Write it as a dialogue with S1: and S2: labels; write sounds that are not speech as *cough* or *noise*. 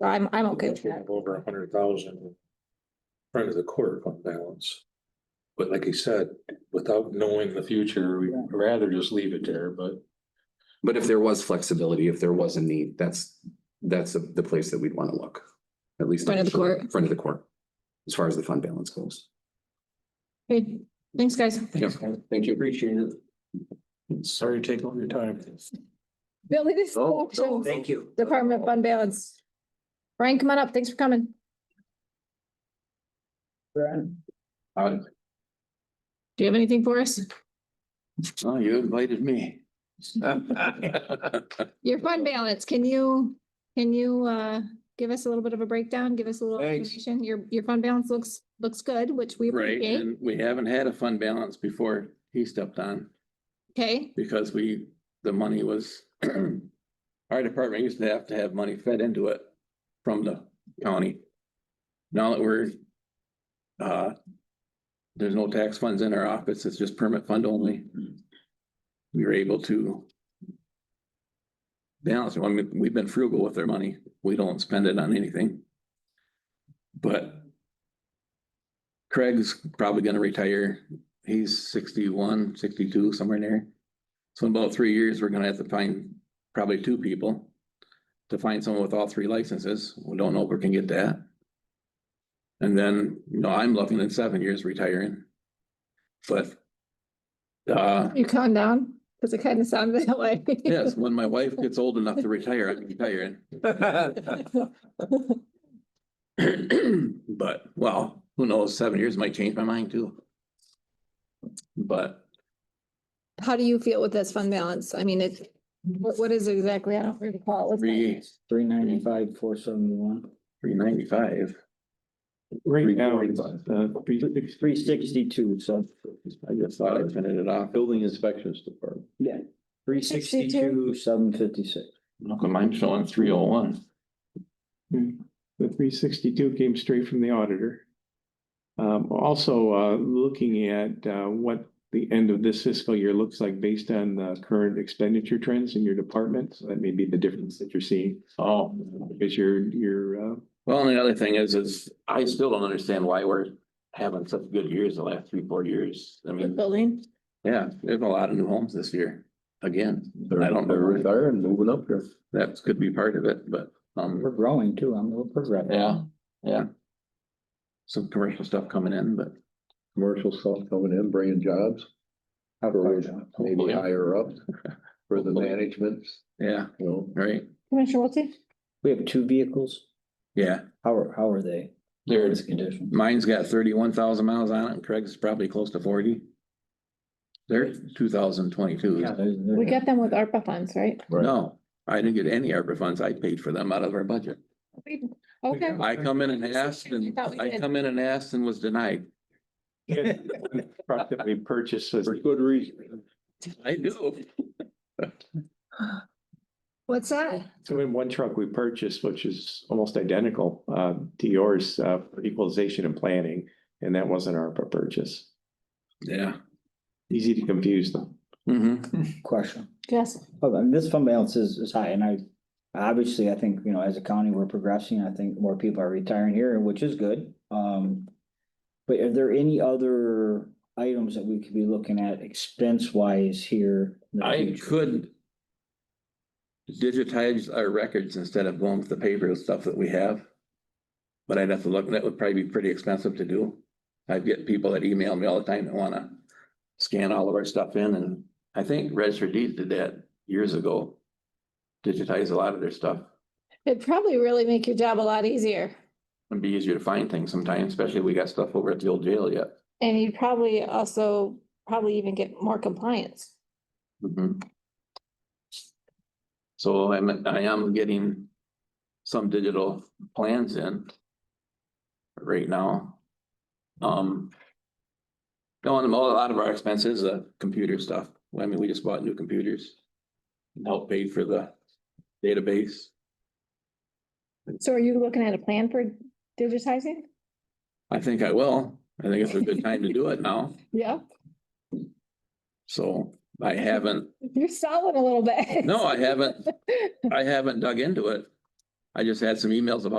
S1: So I'm, I'm okay with that.
S2: Over a hundred thousand. in Front of the quarter fund balance. But like you said, without knowing the future, we'd rather just leave it there, but.
S3: But if there was flexibility, if there was a need, that's, that's the- the place that we'd want to look. At least.
S1: Front of the court.
S3: Front of the court. As far as the fund balance goes.
S1: Okay, thanks, guys.
S3: Yep. Thank you. Appreciate it.
S2: Sorry to take all your time.
S1: Billy, this is
S4: Oh,
S3: Oh,
S1: auctions,
S5: Thank you.
S1: Department of Fund Balance. Brian, come on up. Thanks for coming. Do you have anything for us?
S3: Oh, you invited me.
S1: Your fund balance, can you, can you, uh, give us a little bit of a breakdown? Give us a little
S4: Thanks.
S1: information? Your, your fund balance looks, looks good, which we
S4: Right,
S1: appreciate.
S4: and we haven't had a fund balance before he stepped on
S1: Okay,
S4: because we, the money was. *clears throat* Our department used to have to have money fed into it from the county. Now that we're. Uh. There's no tax funds in our office, it's just permit fund only. We were able to. Balance, I mean, we've been frugal with our money, we don't spend it on anything. But. Craig's probably gonna retire. He's 61, 62, somewhere in there. So in about three years, we're gonna have to find probably two people. To find someone with all three licenses. We don't know if we can get that. And then, you know, I'm looking at seven years retiring. But. Uh,
S1: you calm down, because it kind of sounded *laughs* that way.
S4: yes, when my wife gets old enough to retire, I'm retiring. But, well, who knows, seven years might change my mind too. But
S1: How do you feel with this fund balance? I mean, it, what, what is it exactly? I don't recall. What's that?
S4: three,
S5: Three ninety-five, four seventy-one.
S4: three ninety-five.
S5: Right
S4: now, it's,
S6: uh,
S5: Three sixty-two, so.
S4: I just thought I printed it off.
S7: Building inspections department.
S5: Yeah. Three sixty-two, seven fifty-six.
S4: Look, I'm showing three oh one.
S6: The three sixty-two came straight from the auditor. Um, also, uh, looking at, uh, what the end of this fiscal year looks like based on the current expenditure trends in your department. So that may be the difference that you're seeing,
S4: Oh,
S6: because your, your, uh,
S4: well, and the other thing is, is I still don't understand why we're having such good years the last three, four years. I
S1: The
S4: mean,
S1: building?
S4: yeah, there's a lot of new homes this year, again.
S7: They're, they're retiring, moving up here.
S4: That could be part of it, but,
S5: We're
S4: um,
S5: growing too, I'm a little progressive.
S4: yeah, yeah. Some commercial stuff coming in, but
S7: Commercial stuff coming in, bringing jobs,
S5: How far down?
S7: maybe
S4: Hopefully.
S7: higher up for the
S4: Hopefully.
S7: management,
S4: yeah,
S7: you know.
S4: right,
S1: Commissioner Wiltie?
S5: We have two vehicles.
S4: yeah.
S5: How are, how are they?
S4: There's,
S5: What's the condition?
S4: mine's got thirty-one thousand miles on it, and Craig's is probably close to forty. They're two thousand twenty-two.
S5: Yeah, they're- they're-
S1: We got them with ARPA funds, right?
S4: No, I didn't get any ARPA funds. I paid for them out of our budget.
S1: We- Okay,
S4: I come in and asked
S1: I
S4: and
S1: thought we
S4: I
S1: did.
S4: come in and asked and was denied.
S6: *laughs* truck that we purchased was
S7: For good reason.
S1: *laughs*
S4: I do.
S1: what's that?
S6: So in one truck we purchased, which is almost identical uh, to yours uh, for equalization and planning, and that wasn't our purchase.
S4: Yeah.
S6: Easy to confuse them.
S4: hmm
S5: Question.
S1: Yes.
S5: Oh, and this fund balance is, is high and I, obviously, I think, you know, as a county, we're progressing. I think more people are retiring here, which is good. Um. But are there any other items that we could be looking at expense wise here? in the
S4: I
S5: future?
S4: could digitize our records instead of going with the paper stuff that we have. But I'd have to look, that would probably be pretty expensive to do. I get people that email me all the time that wanna scan all of our stuff in and I think Register Deeds did that years ago. Digitize a lot of their stuff.
S1: It'd probably really make your job a lot easier.
S4: It'd be easier to find things sometimes, especially if we got stuff over at the old jail yet.
S1: And you'd probably also, probably even get more compliance.
S4: Mm-hmm. So I'm, I am getting some digital plans in right now. Um. Going, a lot of our expenses, uh, computer stuff. I mean, we just bought new computers. and Help pay for the database.
S1: So are you looking at a plan for digitizing?
S4: I think I will. I think it's a good time to do it now.
S1: Yeah,
S4: So I haven't,
S1: *laughs* you're stalling a little bit.
S4: no, I haven't, I haven't dug into it. I just had some emails about